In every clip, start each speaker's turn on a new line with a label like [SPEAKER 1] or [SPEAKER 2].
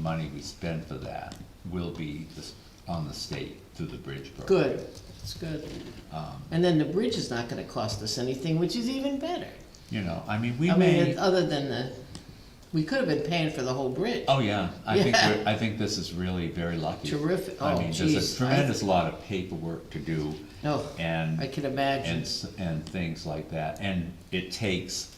[SPEAKER 1] money we spend for that will be this- on the state through the bridge program.
[SPEAKER 2] Good, it's good.
[SPEAKER 1] Um,
[SPEAKER 2] And then the bridge is not gonna cost us anything, which is even better.
[SPEAKER 1] You know, I mean, we
[SPEAKER 2] I mean,
[SPEAKER 1] may,
[SPEAKER 2] it- uh, other than the, we could have been paying for the whole bridge.
[SPEAKER 1] oh, yeah, I think,
[SPEAKER 2] Yeah.
[SPEAKER 1] we're- I think this is really very lucky.
[SPEAKER 2] Terrific.
[SPEAKER 1] I
[SPEAKER 2] Oh,
[SPEAKER 1] mean, there's a
[SPEAKER 2] geez. I-
[SPEAKER 1] tremendous lot of paperwork to do
[SPEAKER 2] No,
[SPEAKER 1] and.
[SPEAKER 2] I can
[SPEAKER 1] and,
[SPEAKER 2] imagine.
[SPEAKER 1] s- and things like that, and it takes,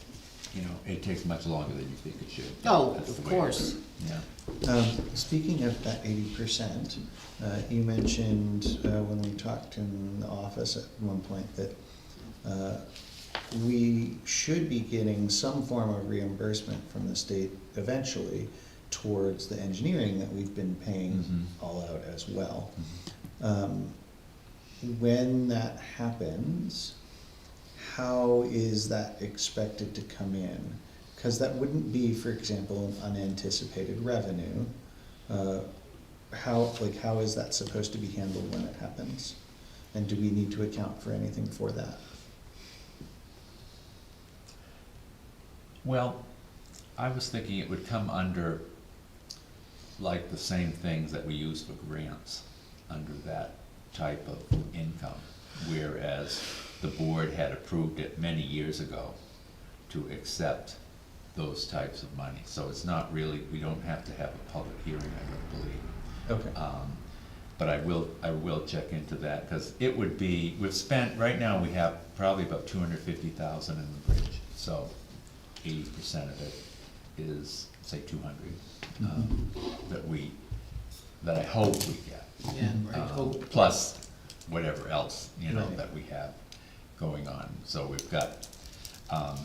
[SPEAKER 1] you know, it takes much longer than you think it should.
[SPEAKER 2] Oh,
[SPEAKER 1] That's the
[SPEAKER 2] of
[SPEAKER 1] way it
[SPEAKER 2] course.
[SPEAKER 1] is. Yeah,
[SPEAKER 3] Um, Speaking of that eighty percent, uh, you mentioned uh, when we talked in the office at one point that uh, we should be getting some form of reimbursement from the state eventually towards the engineering that we've been paying
[SPEAKER 1] Mhm.
[SPEAKER 3] all out as well. Um, When that happens, how is that expected to come in? Because that wouldn't be, for example, an unanticipated revenue. Uh, How, like, how is that supposed to be handled when it happens? And do we need to account for anything for that?
[SPEAKER 1] well, I was thinking it would come under, like, the same things that we use for grants, under that type of income. Whereas the board had approved it many years ago to accept those types of money. So it's not really, we don't have to have a public hearing, I don't believe.
[SPEAKER 3] Okay.
[SPEAKER 1] Um, But I will, I will check into that, because it would be, we've spent, right now, we have probably about two hundred fifty thousand in the bridge, so eighty percent of it is, say, two hundred, um, that we, that I hope we get.
[SPEAKER 2] Yeah, right,
[SPEAKER 1] um,
[SPEAKER 2] hope.
[SPEAKER 1] Plus whatever else, you know,
[SPEAKER 3] Right.
[SPEAKER 1] that we have going on, so we've got, um,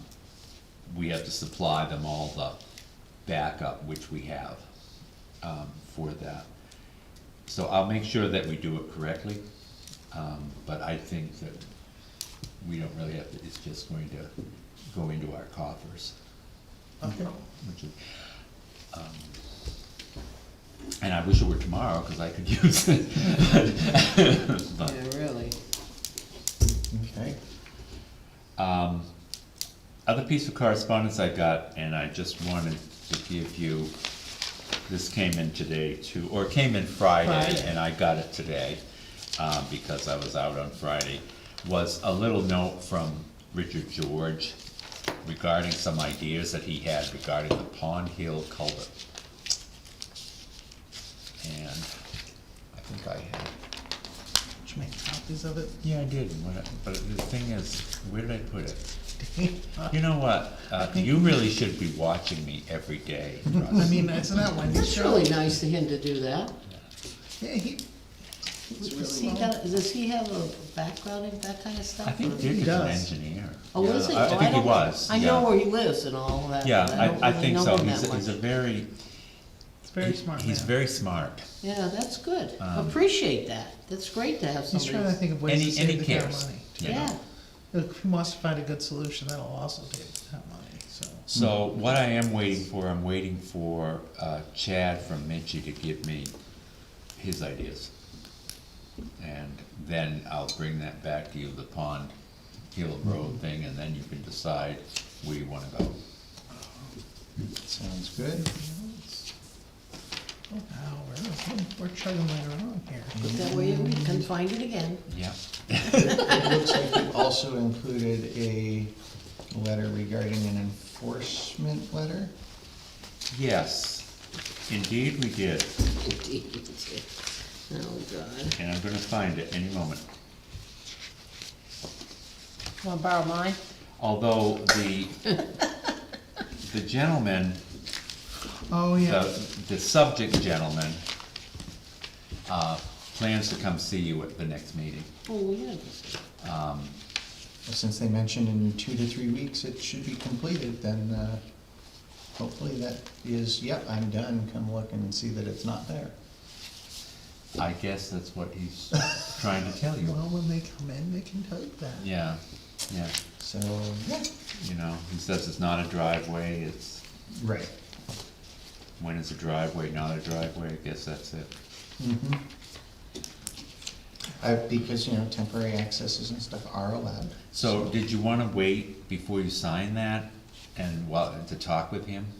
[SPEAKER 1] we have to supply them all the backup, which we have, um, for that. So I'll make sure that we do it correctly, um, but I think that we don't really have to, it's just going to go into our coffers,
[SPEAKER 3] Okay.
[SPEAKER 1] which is, um, and I wish it were tomorrow, cause I could use it. But,
[SPEAKER 2] Yeah, really.
[SPEAKER 3] Okay.
[SPEAKER 1] um, other piece of correspondence I got, and I just wanted to give you, this came in today too, or it came in Friday,
[SPEAKER 2] Friday.
[SPEAKER 1] and I got it today, um, because I was out on Friday, was a little note from Richard George regarding some ideas that he had regarding the Pond Hill culvert. And I think I have
[SPEAKER 3] Did you make copies of it?
[SPEAKER 1] yeah, I did, and what I- but the thing is, where did I put it? You know what, uh, you really should be watching me every day, Russ.
[SPEAKER 4] I mean, it's not one
[SPEAKER 2] It's
[SPEAKER 4] show.
[SPEAKER 2] really nice of him to do that.
[SPEAKER 4] Yeah, he, he's
[SPEAKER 2] Does
[SPEAKER 4] really
[SPEAKER 2] he
[SPEAKER 4] well.
[SPEAKER 2] have, does he have a background in that kind of stuff?
[SPEAKER 1] I think
[SPEAKER 2] or-
[SPEAKER 1] Dick is an
[SPEAKER 3] does.
[SPEAKER 1] engineer.
[SPEAKER 2] Oh, is he?
[SPEAKER 1] I-
[SPEAKER 2] Oh,
[SPEAKER 1] I think he
[SPEAKER 2] don't-
[SPEAKER 1] was,
[SPEAKER 2] I know
[SPEAKER 1] yeah.
[SPEAKER 2] where he lives and all that.
[SPEAKER 1] Yeah,
[SPEAKER 2] but don't
[SPEAKER 1] I, I
[SPEAKER 2] really
[SPEAKER 1] think
[SPEAKER 2] know
[SPEAKER 1] so,
[SPEAKER 2] him
[SPEAKER 1] he's,
[SPEAKER 2] that
[SPEAKER 1] he's a
[SPEAKER 2] much.
[SPEAKER 1] very.
[SPEAKER 4] He's a very smart
[SPEAKER 1] He's
[SPEAKER 4] man.
[SPEAKER 1] very smart,
[SPEAKER 2] Yeah, that's good.
[SPEAKER 1] Um,
[SPEAKER 2] Appreciate that. That's great to have
[SPEAKER 4] He's
[SPEAKER 2] somebody.
[SPEAKER 4] trying to think of
[SPEAKER 1] and
[SPEAKER 4] ways to
[SPEAKER 1] he, and he
[SPEAKER 4] save the town
[SPEAKER 1] cares.
[SPEAKER 4] money.
[SPEAKER 1] you know.
[SPEAKER 2] Yeah,
[SPEAKER 4] Look, If he wants to find a good solution, that'll also save the town money, so.
[SPEAKER 1] So what I am waiting for, I'm waiting for uh, Chad from Minchie to give me his ideas. And then I'll bring that back to you, the Pond Hill Road thing, and then you can decide where you wanna go.
[SPEAKER 3] Sounds good.
[SPEAKER 4] Oh, wow, we're, we're chugging right along here.
[SPEAKER 1] Mm-hmm.
[SPEAKER 2] but that way we can find it again.
[SPEAKER 1] Yeah.
[SPEAKER 3] It looks like you also included a letter regarding an enforcement letter.
[SPEAKER 1] Yes, indeed we did,
[SPEAKER 2] Oh, God.
[SPEAKER 1] and I'm gonna find it any moment.
[SPEAKER 5] Wanna borrow mine?
[SPEAKER 1] Although the, the gentleman
[SPEAKER 4] Oh, yeah,
[SPEAKER 1] the, the subject gentleman, uh, plans to come see you at the next meeting.
[SPEAKER 2] Oh, yeah.
[SPEAKER 3] Since they mentioned in two to three weeks it should be completed, then uh, hopefully that is, yep, I'm done, come look and see that it's not there.
[SPEAKER 1] I guess that's what he's trying to tell you.
[SPEAKER 4] well, when they come in, they can tell you that.
[SPEAKER 1] Yeah, yeah,
[SPEAKER 3] So, yeah,
[SPEAKER 1] you know, he says it's not a driveway, it's,
[SPEAKER 3] right.
[SPEAKER 1] when is a driveway not a driveway, I guess that's it.
[SPEAKER 3] Mhm. Uh, Because, you know, temporary accesses and stuff are allowed.
[SPEAKER 1] So, did you wanna wait before you sign that and, well, to talk with him?